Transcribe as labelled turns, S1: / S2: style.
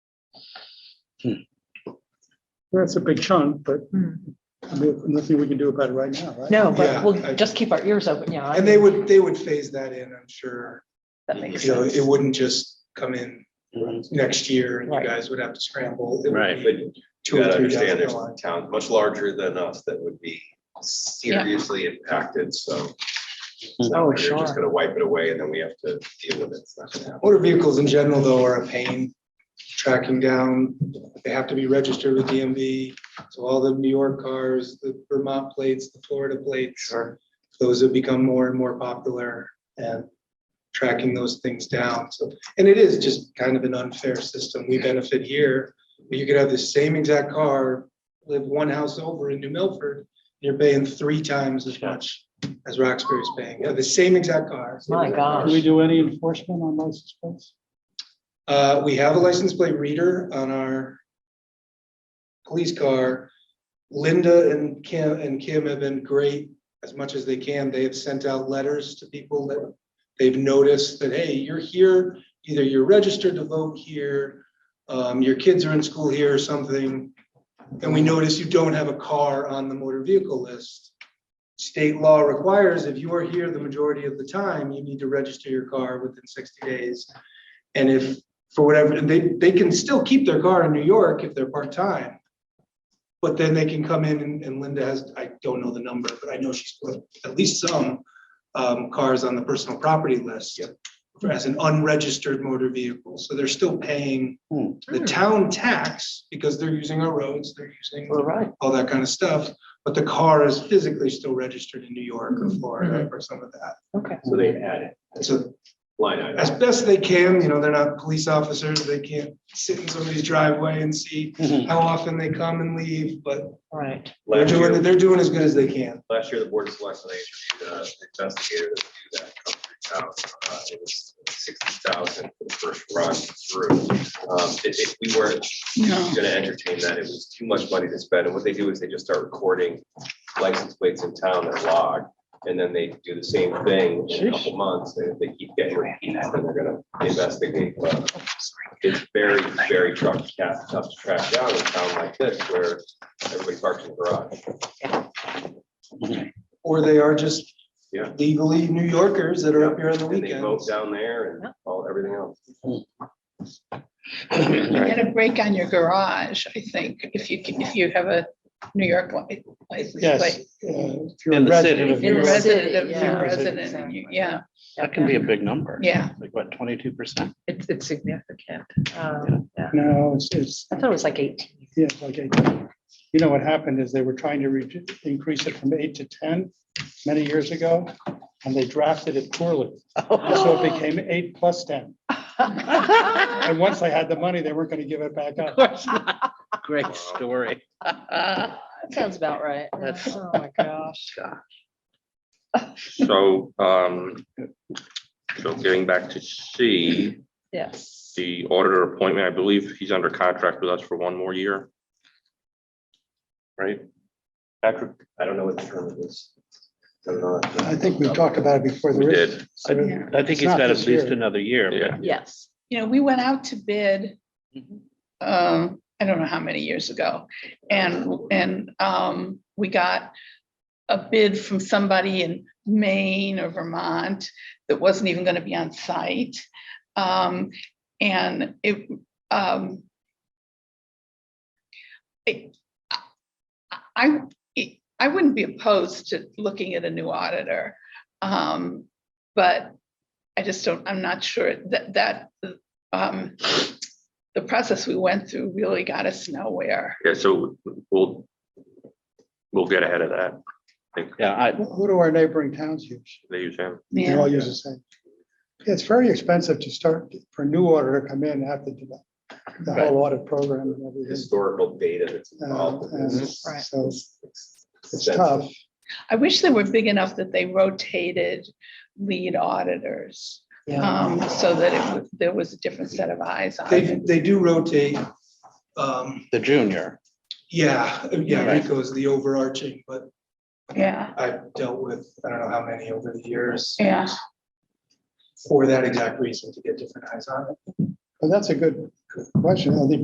S1: That's a big chunk, but
S2: Hmm.
S1: I mean, nothing we can do about it right now, right?
S2: No, but
S3: Yeah,
S2: we'll
S3: I-
S2: just keep our ears open, yeah. I-
S3: And they would, they would phase that in, I'm sure.
S2: That makes
S3: You know,
S2: sense.
S3: it wouldn't just come in
S4: Right,
S3: next year and you
S2: Right.
S3: guys would have to scramble. It would
S4: but
S3: be
S4: you
S3: Two or
S4: gotta
S3: three down
S4: understand,
S3: the
S4: there's
S3: line.
S4: towns much larger than us that would be seriously impacted, so. it's not
S2: Oh,
S4: like You're
S2: sure.
S4: just gonna wipe it away and then we have to deal with it. It's not gonna happen.
S3: Motor vehicles in general though are a pain tracking down. They have to be registered with DMV. So all the New York cars, the Vermont plates, the Florida plates,
S4: Sure.
S3: those have become more and more popular and tracking those things down. So, and it is just kind of an unfair system. We benefit here. but You could have the same exact car, live one house over in New Milford, and you're paying three times as much as Roxbury's paying for the same exact car.
S2: My
S1: Do we
S2: gosh,
S1: do any enforcement on license plates?
S3: Uh, we have a license plate reader on our police car. Linda and Kim and Kim have been great as much as they can. They have sent out letters to people that they've noticed that, hey, you're here, either you're registered to vote here, um, your kids are in school here or something. And we notice you don't have a car on the motor vehicle list. State law requires if you are here the majority of the time, you need to register your car within sixty days. And if, for whatever, and they, they can still keep their car in New York if they're part-time. But then they can come in and- and Linda has, I don't know the number, but I know she's put at least some um, cars on the personal property list. As an unregistered motor vehicle, so they're still paying
S1: Hmm.
S3: the town tax because they're using our roads, they're using
S2: we're right.
S3: all that kind of stuff. But the car is physically still registered in New York
S4: Mm-hmm.
S3: or Florida or some of that.
S2: Okay.
S4: So they add it,
S3: And so
S4: line item.
S3: as best they can, you know, they're not police officers, they can't sit in somebody's driveway and see how often they come and leave, but
S2: All right.
S3: they're
S4: Mm-hmm. Last year-
S3: doing, they're doing as good as they can.
S4: Last year, the board of selectmen interviewed an investigator that would do that. come through town. Uh, It was sixty thousand for the first run through. Um, If if we weren't gonna entertain that, it was too much money to spend. And what they do is they just start recording license plates in town that log. And then they do the same thing in a couple months. And if they keep getting repeats, then they're gonna investigate. But It's very, very tough, tough to track down in a town like this where everybody parks in the garage.
S3: Or they are just
S4: Yeah.
S3: legally New Yorkers that are up here on the
S4: And they vote
S3: weekends.
S4: down there and all, everything else.
S5: You get a break on your garage, I think, if you, can- if you have a New York li- license
S1: Yes.
S5: plate.
S6: In the city.
S5: You're a
S2: In the
S1: city.
S5: resident, of-
S2: city,
S5: you're
S2: yeah.
S5: a resident, and you- yeah,
S6: That can be a big number.
S5: yeah.
S6: Like what, twenty-two percent?
S2: It's, it's significant. Um, yeah.
S1: No, it's, it's,
S2: I thought it was like eighteen.
S1: yeah, it's like, eight. you know, what happened is they were trying to redu- increase it from eight to ten many years ago, and they drafted it poorly. And
S2: Oh.
S1: So it became eight plus ten. And once they had the money, they weren't gonna give it back up.
S6: Great story.
S2: Sounds about right.
S6: That's-
S2: Oh, my gosh.
S7: So, um, so getting back to C,
S2: Yes.
S7: the auditor appointment, I believe he's under contract with us for one more year. Right? Patrick,
S4: I don't know what the term of this. I don't know.
S1: I think we talked about it before.
S7: we
S1: There is-
S7: did,
S6: I
S1: there-
S5: Yeah.
S6: I think
S1: It's
S6: he's
S1: not
S6: got at
S1: this
S6: least
S1: year.
S6: another year.
S7: yeah.
S2: Yes.
S5: You know, we went out to bid,
S6: Mhm.
S5: um, I don't know how many years ago, and, and, um, we got a bid from somebody in Maine or Vermont that wasn't even gonna be on site. Um, and it, um, it- I, I- I wouldn't be opposed to looking at a new auditor, um, but I just don't, I'm not sure that, that, um, the process we went through really got us nowhere.
S7: Yeah, so we'll, we'll get ahead of that. I think
S6: Yeah, I,
S1: Who do our neighboring towns use?
S7: they use him.
S1: They all use the same. It's very expensive to start, for a new auditor to come in and have to do that, the whole audit program and everything.
S4: Historical data that's
S1: Uh,
S4: involved. in
S1: and
S4: this.
S2: Right.
S1: So it's
S4: That's-
S1: tough.
S5: I wish they were big enough that they rotated lead auditors,
S2: Yeah.
S5: um, so that it, was- there was a different set of eyes on
S3: They,
S5: it.
S3: they do rotate. Um,
S6: the junior,
S3: yeah, yeah,
S6: Right.
S3: Rico's the overarching, but
S5: Yeah,
S3: I've dealt with, I don't know how many over the years
S5: yeah.
S3: for that exact reason, to get different eyes on it.
S1: But that's a good question. I think